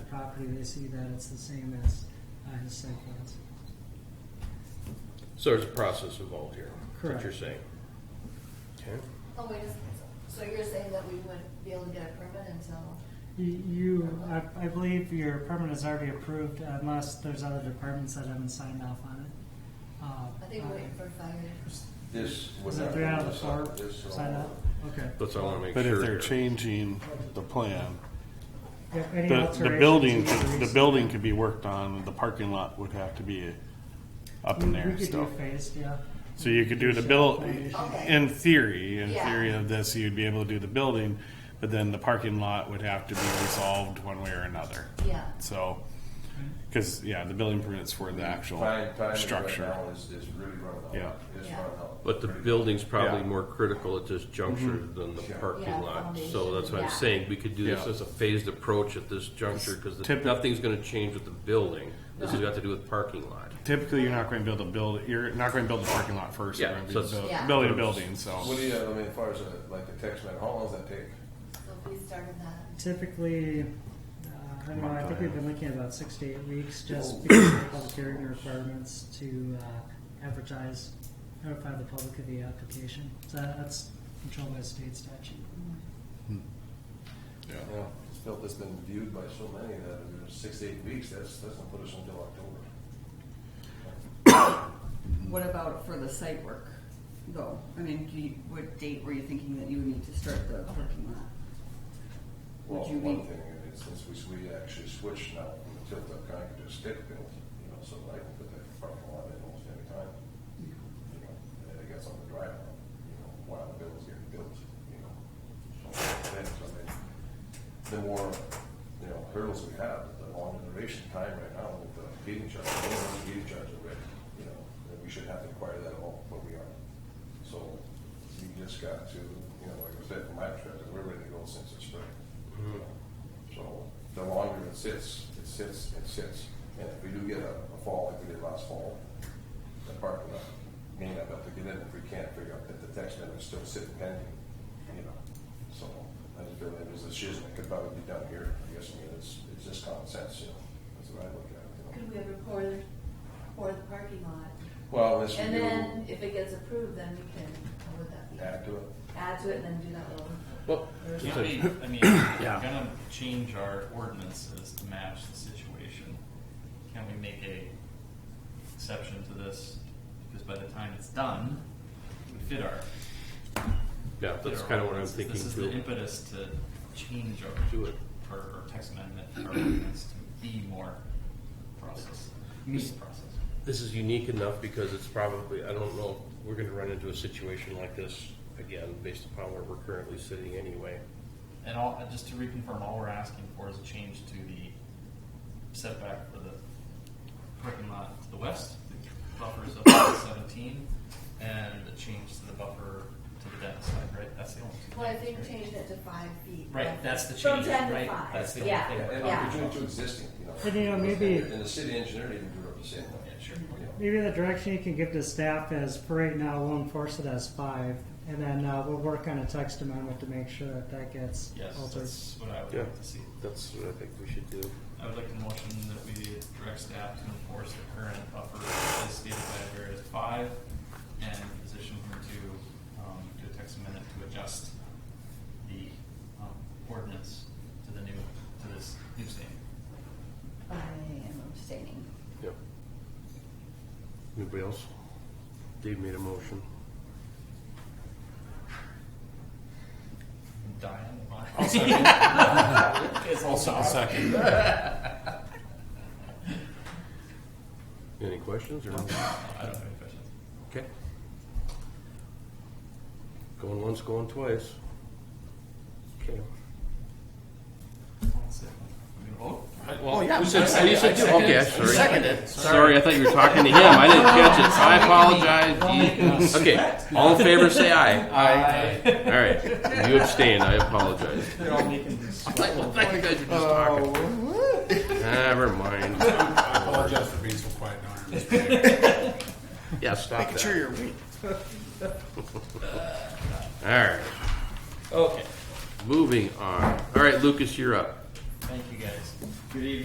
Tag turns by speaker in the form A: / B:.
A: property, they see that it's the same as uh, his site plans.
B: So there's a process involved here, is what
A: Correct.
B: you're saying. Okay,
C: Oh, wait a second. So you're saying that we wouldn't be able to get a permit until,
A: You- You, I I believe your permit is already approved unless there's other departments that haven't signed off on it. Uh,
C: I think we're waiting
A: uh,
C: for fire.
D: This would
A: Is it
D: not
A: three out of the
D: this all-
A: four
D: this all-
A: sign up? Okay.
B: that's all I want to make sure.
E: But if they're
B: here.
E: changing the plan,
A: Yeah, any
E: the, the
A: alterations
E: building,
A: you can
E: could- the
A: raise-
E: building could be worked on, the parking lot would have to be up
A: We
E: in
A: we
E: there
A: could do
E: still.
A: phased, yeah.
E: So you could do the build,
C: Okay.
E: in theory, in
C: Yeah.
E: theory of this, you'd be able to do the building, but then the parking lot would have to be resolved one way or another.
C: Yeah.
E: So, cause yeah, the building permits for the actual
D: Time, time right
E: structure.
D: now is, is really running out.
E: Yeah.
D: It's
C: Yeah.
D: running out.
B: But the building's probably
E: Yeah.
B: more critical at this juncture
F: Mm-hmm.
B: than the
D: Sure.
B: parking
C: Yeah,
B: lot. So
C: foundation,
B: that's what I'm
C: yeah.
B: saying, we could do this
E: Yeah.
B: as a phased approach at this juncture, because
E: Typ-
B: nothing's gonna change with the building. This has got to do with parking lot.
E: Typically, you're not going to build a build, you're not going to build a parking lot first. You're
B: Yeah,
E: going to
B: so
E: build,
B: it's-
C: Yeah.
E: building a building, so.
D: What do you, I mean, as far as uh, like the text man, how long does that take?
C: So if we started that,
A: Typically, uh, I don't know, I
E: Month
A: think
E: and a
A: we've been
E: half.
A: looking at about six to eight weeks
F: Oh.
A: just because of the public hearing requirements to uh, advertise, notify the public of the application. So that's controlled by state statute.
D: You know, this built, it's been viewed by so many that if it's six, to eight weeks, that's, that's gonna put us until October.
G: What about for the site work, though? I mean, do you, what date were you thinking that you would need to start the parking lot?
D: Well,
G: Would you
D: one
G: be-
D: thing is, since we, we actually switched now from the tilt up kind to a stick built, you know, so I can put that parking lot in almost every time. You know, and it gets on the drive, you know, while the building's getting built, you know. So, that's, I mean, The more, you know, hurdles we have, the longer duration time right now with the heating charge, the minimum heating charge already, you know, that we should have to acquire that at all, but we aren't. So we just got to, you know, like I said, from my perspective, we're ready to go since the spring. you know. So the longer it sits, it sits, it sits. And if we do get a, a fall like we did last fall, the parking lot may not be able to get in if we can't figure out that the text amendment is still sitting pending, you know. So I just feel that there's a schism that could probably be done here. I guess, I mean, it's, it's just common sense, you know, that's what I look at. you know.
C: could we ever pour, the- pour the parking lot?
D: Well, unless we
C: And then
D: do
C: if it gets approved, then we can, how would that be?
D: add to it.
C: Add to it and then do that little.
B: Well,
F: Can't
B: so-
F: we, I mean, if we're gonna change our ordinances to match the situation, can we make a exception to this? Because by the time it's done, we fit our.
B: yeah,
F: fit
B: that's
F: our
B: kind of what I'm
F: ordinances.
B: thinking
F: This is the
B: too.
F: impetus to change
B: Do
F: our,
B: it.
F: our, our text amendment, our ordinance to be more process, meet process.
B: This is unique enough because it's probably, I don't know, if we're gonna run into a situation like this again, based upon where we're currently sitting anyway.
F: And all, and just to reconfirm, all we're asking for is a change to the setback for the parking lot to the west, the buffers up to seventeen, and a change to the buffer to the depth side, right? That's the only. two
C: Well, I think
F: things, right?
C: change it to five feet.
F: Right, that's the
C: From
F: change,
C: 10 to
F: right?
C: five.
F: That's the only
C: Yeah,
F: thing. we're
D: And
C: yeah.
F: talking
D: between
F: about.
D: two existing, you know.
A: And, you know, maybe-
D: And the city engineer didn't do it the same way.
F: Yeah, sure.
D: You know.
A: Maybe the direction you can give to staff is for right now, we'll enforce it as five. And then uh, we'll work on a text amendment to make sure that that gets
F: Yes,
A: altered.
F: that's what I would
B: Yeah,
F: like to see.
B: that's what I think we should do.
F: I would like a motion that we direct staff to enforce the current buffer as stated by various five and position her to, um, do a text amendment to adjust the, um, ordinance to the new, to this new standard.
G: I am abstaining.
B: Yep. Anybody else? Dave made a motion.
F: Diane, am I-
E: Also, second.
B: Any questions or?
F: I don't have any questions.
B: Okay. Going once, going twice. Okay.
F: One second. We gonna vote?
B: Well, yeah. Okay, sorry.
H: Seconded.
B: Sorry, I thought you were talking to him. I didn't catch it. I apologize. Okay, all in favor, say aye.
F: Aye.
B: All right, you abstain. I apologize.
F: They're all making these.
B: Like, well, I think I should just talk. Uh, Never mind.
I: I apologize for being so quiet now.
B: Yeah, stop
H: Making sure
B: that.
H: you're weak.
B: All right,
F: Okay,
B: moving on. All right, Lucas, you're up.
F: thank you guys. Good evening.